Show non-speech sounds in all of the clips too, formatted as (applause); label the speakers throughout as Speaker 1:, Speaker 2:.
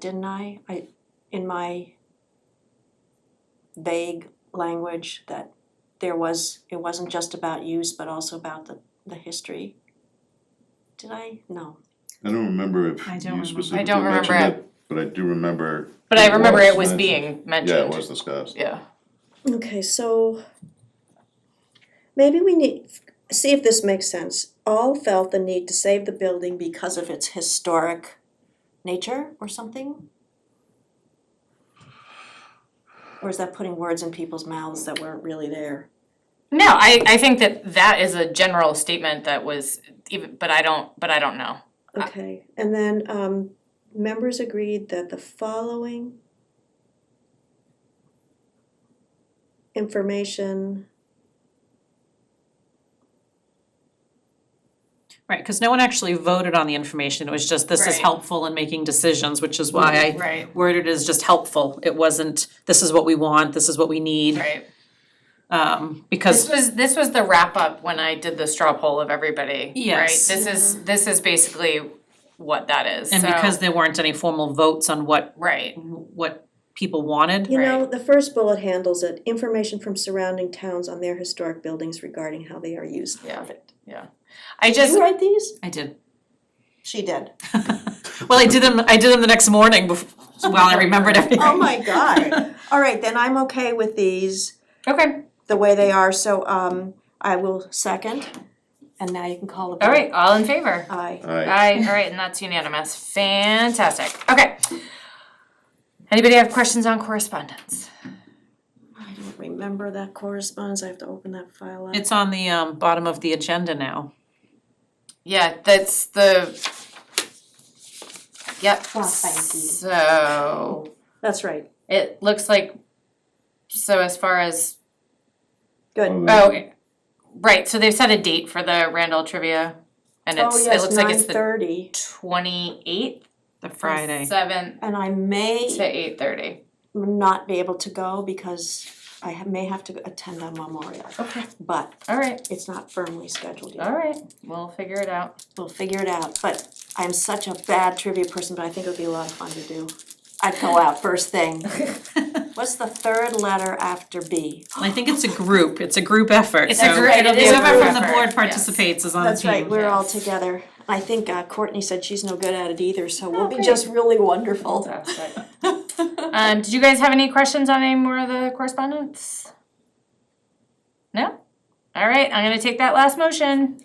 Speaker 1: didn't I? I, in my vague language, that there was, it wasn't just about use, but also about the, the history. Did I? No.
Speaker 2: I don't remember if
Speaker 3: I don't
Speaker 2: you
Speaker 3: remember.
Speaker 2: specifically
Speaker 4: I don't remember
Speaker 2: mentioned it, but I do remember.
Speaker 4: But I remember it was
Speaker 2: mentioned.
Speaker 4: being mentioned.
Speaker 2: Yeah, it was discussed.
Speaker 4: Yeah.
Speaker 5: Okay, so maybe we need, see if this makes sense. All felt the need to save the building because
Speaker 1: Because of its historic nature or something? Or is that putting words in people's mouths that weren't really there?
Speaker 4: No, I, I think that that is a general statement that was even, but I don't, but I don't know.
Speaker 5: Okay, and then um members agreed that the following information,
Speaker 3: Right, because no one actually voted on the information, it was just this is
Speaker 4: Right.
Speaker 3: helpful in making decisions, which is why I
Speaker 4: Right,
Speaker 3: worded it as just helpful. It wasn't, this is what we want, this is what we need,
Speaker 4: right.
Speaker 3: um,
Speaker 4: This
Speaker 3: because,
Speaker 4: was, this was the wrap up when I did the straw poll of everybody, right?
Speaker 3: Yes.
Speaker 4: This is, this is basically what that is,
Speaker 3: and
Speaker 4: so-
Speaker 3: because there weren't any formal votes on what,
Speaker 4: Right,
Speaker 3: what people wanted.
Speaker 5: you know, the first bullet handles it, information from surrounding towns on their historic buildings regarding how they are used.
Speaker 4: yeah,
Speaker 5: Perfect.
Speaker 4: yeah. I
Speaker 1: Did
Speaker 4: just,
Speaker 1: you write these?
Speaker 3: I did,
Speaker 1: She did.
Speaker 3: well, I did them, I did them the next morning bef- while I remembered everything.
Speaker 1: Oh my god. All right, then I'm okay with these
Speaker 4: okay,
Speaker 1: the way they are, so um I will second. And now you can call the vote.
Speaker 4: all right, all in favor?
Speaker 1: Aye.
Speaker 2: Aye,
Speaker 4: Aye, all right, and that's unanimous, fantastic, okay. Anybody have questions on correspondence?
Speaker 1: I don't remember that correspondence, I have to open that file up.
Speaker 3: It's on the, um, bottom of the agenda now.
Speaker 4: Yeah, that's the. Yep,
Speaker 1: Well, Oh, thank you.
Speaker 4: so
Speaker 1: That's right,
Speaker 4: it looks like, so as far as,
Speaker 1: good. Mm.
Speaker 2: Oh,
Speaker 4: oh, right, so they've set a date for the Randall trivia. And
Speaker 1: Oh,
Speaker 4: it's, it
Speaker 1: yes,
Speaker 4: looks like
Speaker 1: nine
Speaker 4: it's the
Speaker 1: thirty,
Speaker 4: twenty eighth,
Speaker 3: The Friday.
Speaker 4: seventh
Speaker 1: and I
Speaker 4: to
Speaker 1: may
Speaker 4: eight thirty.
Speaker 1: not be able to go because I ha- may have to attend on Memorial.
Speaker 4: Okay.
Speaker 1: But
Speaker 4: Alright,
Speaker 1: it's not firmly scheduled yet,
Speaker 4: alright, we'll figure it out.
Speaker 1: we'll figure it out, but I'm such a bad trivia person, but I think it would be a lot of fun to do. I'd go out first
Speaker 4: (laughs)
Speaker 1: thing. What's the third letter after B?
Speaker 3: I think it's a group, it's a group effort,
Speaker 4: It's
Speaker 3: so.
Speaker 4: a gr- it is a
Speaker 3: Whoever
Speaker 4: group
Speaker 3: from the
Speaker 4: effort,
Speaker 3: board
Speaker 4: yes.
Speaker 3: participates is on the team.
Speaker 1: That's right, we're all
Speaker 4: yes.
Speaker 1: together. I think uh, Courtney said she's no good at it either, so we'll be
Speaker 4: great.
Speaker 1: just really wonderful.
Speaker 4: Fantastic. (laughs) Um, did you guys have any questions on any more of the correspondence? No? Alright, I'm gonna take that last motion.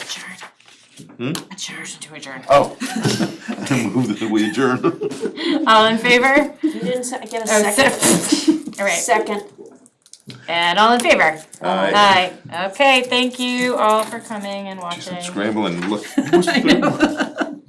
Speaker 4: Adjourn.
Speaker 2: Hmm?
Speaker 4: Adjourn to adjourn.
Speaker 2: oh. (laughs) I moved that we
Speaker 4: (laughs)
Speaker 2: adjourn.
Speaker 4: All in (laughs) favor?
Speaker 1: You didn't se- get a
Speaker 4: Oh,
Speaker 1: second,
Speaker 4: (laughs) Alright,
Speaker 1: second.
Speaker 4: and all in favor?
Speaker 2: Aye.
Speaker 4: Aye. Okay, thank you all for coming and watching. (laughs)
Speaker 2: Scramble and look. What's the third one?